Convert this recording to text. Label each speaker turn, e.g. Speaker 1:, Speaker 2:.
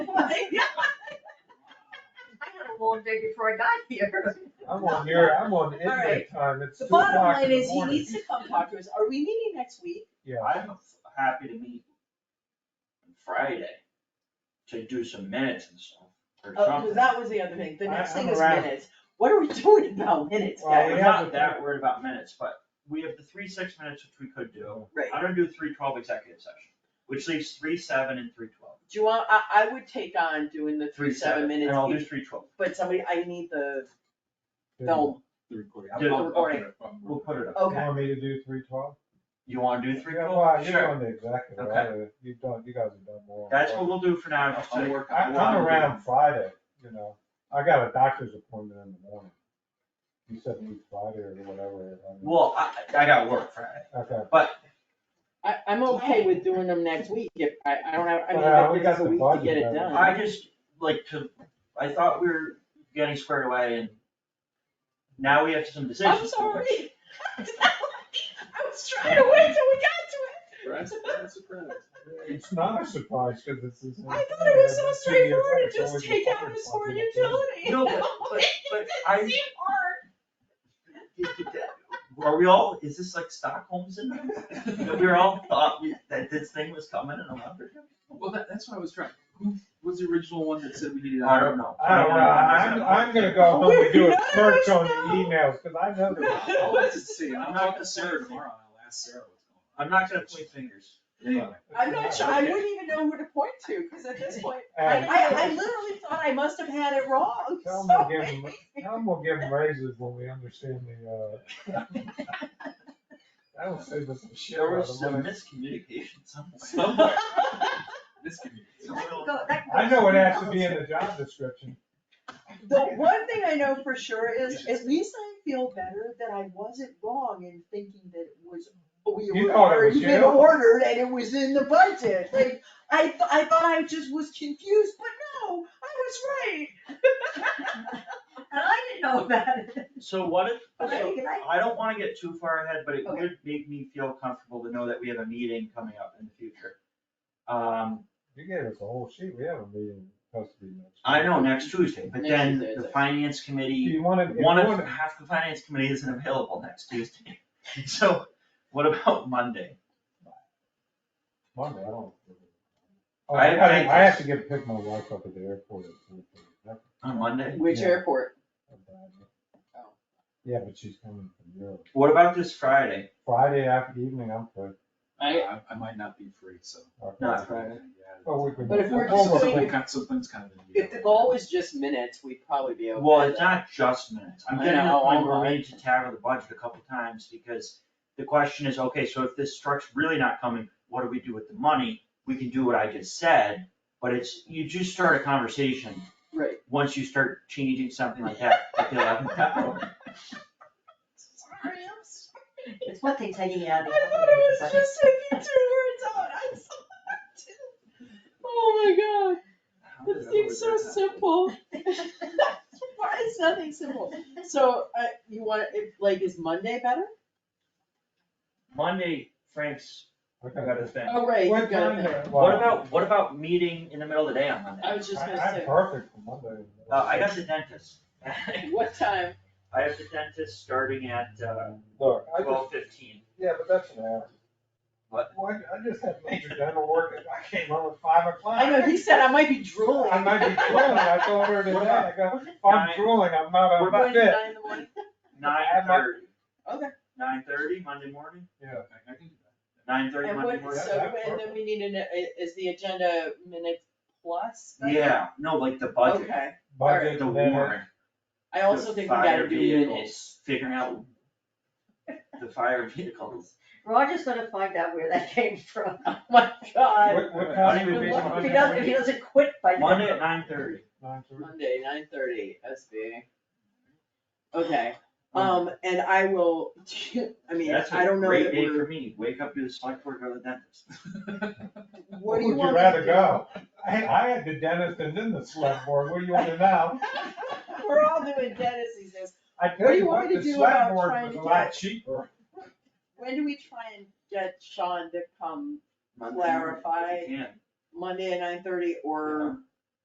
Speaker 1: I had a long day before I got here.
Speaker 2: I'm on your, I'm on
Speaker 1: Alright.
Speaker 2: inmate time, it's
Speaker 3: The
Speaker 2: two o'clock
Speaker 3: bottom
Speaker 2: in the morning.
Speaker 3: line is, he needs to come talk to us, are we meeting next week?
Speaker 2: Yeah,
Speaker 4: I'm happy to meet on Friday to do some minutes and stuff, or
Speaker 3: Oh, 'cause
Speaker 4: something.
Speaker 3: that was the other thing, the next
Speaker 2: I-
Speaker 3: thing
Speaker 2: I'm
Speaker 3: is
Speaker 2: around.
Speaker 3: minutes, what are we doing about minutes,
Speaker 2: Well,
Speaker 3: guys?
Speaker 2: we
Speaker 4: I'm
Speaker 2: have
Speaker 4: not
Speaker 2: the-
Speaker 4: that worried about minutes, but we have the three six minutes which we could do.
Speaker 3: Right,
Speaker 4: I'm gonna do three twelve executive session, which leaves three seven and three twelve.
Speaker 3: do you want, I, I would take on doing the three, seven minutes
Speaker 4: And I'll do
Speaker 3: each,
Speaker 4: three twelve.
Speaker 3: but somebody, I need the film,
Speaker 5: The recording.
Speaker 4: Yeah, the
Speaker 5: I'll- I'll put
Speaker 3: recording.
Speaker 5: it up.
Speaker 4: We'll put it up.
Speaker 2: You
Speaker 3: okay,
Speaker 2: want me to do three twelve?
Speaker 4: You wanna do three
Speaker 2: Yeah, well,
Speaker 4: twelve?
Speaker 2: you're
Speaker 4: Sure.
Speaker 2: on the executive,
Speaker 4: Okay.
Speaker 2: right? you've done, you guys have done more.
Speaker 4: That's what we'll do for now, um, just
Speaker 5: I'll
Speaker 4: to-
Speaker 5: work on
Speaker 2: I,
Speaker 5: it.
Speaker 2: I'm around Friday, you know, I got a doctor's appointment in the morning. You said it was Friday or whatever. I mean,
Speaker 4: well, I, I gotta work Friday.
Speaker 2: Okay,
Speaker 3: I, I'm okay with doing them next week, if, I, I don't have, I mean,
Speaker 2: Well, we
Speaker 3: that gives us a
Speaker 2: got the
Speaker 3: week to
Speaker 2: budget
Speaker 3: get it
Speaker 2: done.
Speaker 3: done.
Speaker 4: I just, like, to, I thought we were getting squared away and now we have some decisions.
Speaker 3: I'm sorry. I was trying to wait till we got to it.
Speaker 5: Surprise, surprise, surprise.
Speaker 2: it's not a surprise, cause it's. it's-
Speaker 3: I thought it was
Speaker 2: it's
Speaker 3: so
Speaker 2: always
Speaker 3: straightforward,
Speaker 2: the
Speaker 3: just take out this
Speaker 2: fucking
Speaker 3: word
Speaker 2: thing.
Speaker 3: utility.
Speaker 4: No, but- but- but I-
Speaker 3: It's hard.
Speaker 4: Are we all, is this like Stockholm syndrome? That we were all thought we- that this thing was coming in a month or two?
Speaker 5: Well, that, that's what I was trying, who was the original one that said we needed?
Speaker 4: I don't know.
Speaker 2: I don't know, I'm, I'm gonna go home and do a
Speaker 3: We're
Speaker 2: search on the
Speaker 3: nervous
Speaker 2: emails, cause I know.
Speaker 5: I'll
Speaker 2: that-
Speaker 5: I'll let it see, I'll talk to Sarah tomorrow, I'll ask Sarah what's going on.
Speaker 4: I'm not gonna point fingers.
Speaker 5: Anyway,
Speaker 3: I'm not sure, I wouldn't even know who to point to, because at this point, I,
Speaker 2: And-
Speaker 3: I, I literally thought I must have had it wrong,
Speaker 2: Tell 'em
Speaker 3: so.
Speaker 2: to give 'em- Now I'm gonna give them raises when we understand the, uh. That'll save us some shit.
Speaker 4: There
Speaker 2: out
Speaker 4: was
Speaker 2: of
Speaker 4: some
Speaker 2: money.
Speaker 4: miscommunication somewhere.
Speaker 5: somewhere, this can be.
Speaker 1: That can go- that can go
Speaker 2: I know it
Speaker 1: somewhere
Speaker 2: has to be in
Speaker 1: else.
Speaker 2: the job description.
Speaker 3: The one thing I know for sure is, at least I feel better that I wasn't wrong in thinking that it was, we
Speaker 2: You
Speaker 3: were
Speaker 2: thought it was
Speaker 3: already been
Speaker 2: you?
Speaker 3: ordered and it was in the budget. Like, I, th- I thought I just was confused, but no, I was right.
Speaker 1: And I didn't know about it.
Speaker 4: So what if,
Speaker 1: But I
Speaker 4: so
Speaker 1: think I-
Speaker 4: I don't wanna get too far ahead, but it
Speaker 1: Okay.
Speaker 4: would make me feel comfortable to know that we have a meeting coming up in the future. Um,
Speaker 2: You gave us a whole sheet. We have a meeting supposed to be next.
Speaker 4: I
Speaker 2: week.
Speaker 4: know next Tuesday, but
Speaker 3: Next
Speaker 4: then
Speaker 3: Tuesday,
Speaker 4: the
Speaker 3: it's-
Speaker 4: finance
Speaker 2: Do
Speaker 4: committee,
Speaker 2: you wanna, if you
Speaker 4: one of,
Speaker 2: wanna,
Speaker 4: half the finance committee isn't available next Tuesday. So what about Monday?
Speaker 2: Monday, I don't. Oh,
Speaker 4: I-
Speaker 2: I gotta-
Speaker 4: I-
Speaker 2: I have to get, pick my wife up at the airport at three thirty. That's
Speaker 4: On Monday?
Speaker 3: Which
Speaker 2: Yeah.
Speaker 3: airport?
Speaker 2: a bad one.
Speaker 3: Oh.
Speaker 2: Yeah, but she's coming from Europe.
Speaker 4: What about this Friday?
Speaker 2: Friday after evening, I'm free.
Speaker 5: I, I might not be free, so.
Speaker 2: Okay.
Speaker 4: Not Friday.
Speaker 5: Yeah.
Speaker 2: Oh, we can.
Speaker 3: But if we're
Speaker 2: we'll
Speaker 3: just
Speaker 2: work
Speaker 3: doing-
Speaker 2: it.
Speaker 5: We've got some things kind of. in
Speaker 3: If the goal is just minutes, we'd probably be okay.
Speaker 4: Well, it's not just minutes. I'm
Speaker 3: I
Speaker 4: getting to the
Speaker 3: know, oh
Speaker 4: point where
Speaker 3: I'm-
Speaker 4: we need to tackle the budget a couple times because the question is, okay, so if this truck's really not coming, what do we do with the money? We can do what I just said, but it's, you just start a conversation
Speaker 3: Right.
Speaker 4: once you start changing something like that at the eleventh hour.
Speaker 3: Sorry, I'm sorry.
Speaker 1: It's one thing taking it out
Speaker 3: I
Speaker 1: of
Speaker 3: thought
Speaker 1: the.
Speaker 3: it was just taking two words out, I saw that too. Oh my god, it seems so simple. Why is nothing simple? So, uh, you want, if, like, is Monday better?
Speaker 4: Monday, Frank's got
Speaker 2: Okay.
Speaker 4: his thing.
Speaker 3: Oh, right, you
Speaker 2: What
Speaker 3: got
Speaker 2: time?
Speaker 3: it there.
Speaker 4: What about, what about meeting in the middle of the day on Monday?
Speaker 3: I was just
Speaker 2: I-
Speaker 3: gonna
Speaker 2: I'm
Speaker 3: say,
Speaker 2: perfect for Monday.
Speaker 4: Uh, I got the dentist.
Speaker 3: what time?
Speaker 4: I have the dentist starting at, uh,
Speaker 2: Look, I just,
Speaker 4: twelve fifteen.
Speaker 2: yeah, but that's an hour.
Speaker 4: What?
Speaker 2: Well, I- I just had major dental work and I came home at five o'clock.
Speaker 3: I know, he said I might be drooling.
Speaker 2: I might be drooling, I told her today,
Speaker 4: What
Speaker 2: I
Speaker 4: about-
Speaker 2: go, I'm
Speaker 4: Nine.
Speaker 2: drooling, I'm
Speaker 4: What
Speaker 2: not
Speaker 4: about-
Speaker 2: on
Speaker 3: When,
Speaker 2: fit.
Speaker 3: nine in the morning?
Speaker 4: Nine
Speaker 2: I'm not-
Speaker 4: thirty.
Speaker 3: Okay.
Speaker 4: Nine thirty, Monday morning,
Speaker 2: Yeah.
Speaker 5: I can do that.
Speaker 4: nine thirty
Speaker 3: And
Speaker 4: Monday
Speaker 3: what,
Speaker 4: morning.
Speaker 3: so, and then we need an, is the agenda minutes plus? then?
Speaker 4: Yeah, no, like the budget,
Speaker 3: Okay,
Speaker 2: Budget,
Speaker 4: the
Speaker 2: and then
Speaker 4: warrant.
Speaker 3: I
Speaker 4: the
Speaker 3: also think we
Speaker 4: fire
Speaker 3: gotta do minutes.
Speaker 4: vehicles, Figuring out the fire vehicles.
Speaker 1: Roger's gonna find out where that came from.
Speaker 3: Oh my god.
Speaker 2: What, what
Speaker 4: I
Speaker 2: time
Speaker 4: don't
Speaker 2: would be
Speaker 4: even know.
Speaker 1: If he
Speaker 2: Monday?
Speaker 1: doesn't, if he doesn't quit by then.
Speaker 4: Monday at nine thirty.
Speaker 2: Nine thirty?
Speaker 3: Monday, nine thirty, SB. Okay, um, and I will, I mean,
Speaker 4: Hmm. That's a
Speaker 3: I don't know
Speaker 4: great
Speaker 3: that
Speaker 4: day for
Speaker 3: we're,
Speaker 4: me, wake up, do the select board, go to the dentist.
Speaker 3: what do
Speaker 2: Where
Speaker 3: you want
Speaker 2: Would you
Speaker 3: me to
Speaker 2: rather
Speaker 3: do?
Speaker 2: go? I, I had the dentist and then the select board, what do you want to know?
Speaker 3: We're all doing dentist these days.
Speaker 2: I
Speaker 3: What do
Speaker 2: tell
Speaker 3: you
Speaker 2: you
Speaker 3: want
Speaker 2: what,
Speaker 3: me to
Speaker 2: the
Speaker 3: do
Speaker 2: select
Speaker 3: about
Speaker 2: board
Speaker 3: trying
Speaker 2: was a
Speaker 3: to
Speaker 2: lot
Speaker 3: get-
Speaker 2: cheaper.
Speaker 3: When do we try and get Sean to come
Speaker 4: Monday morning, if
Speaker 3: Clarify.
Speaker 4: you can.
Speaker 3: Monday at nine thirty or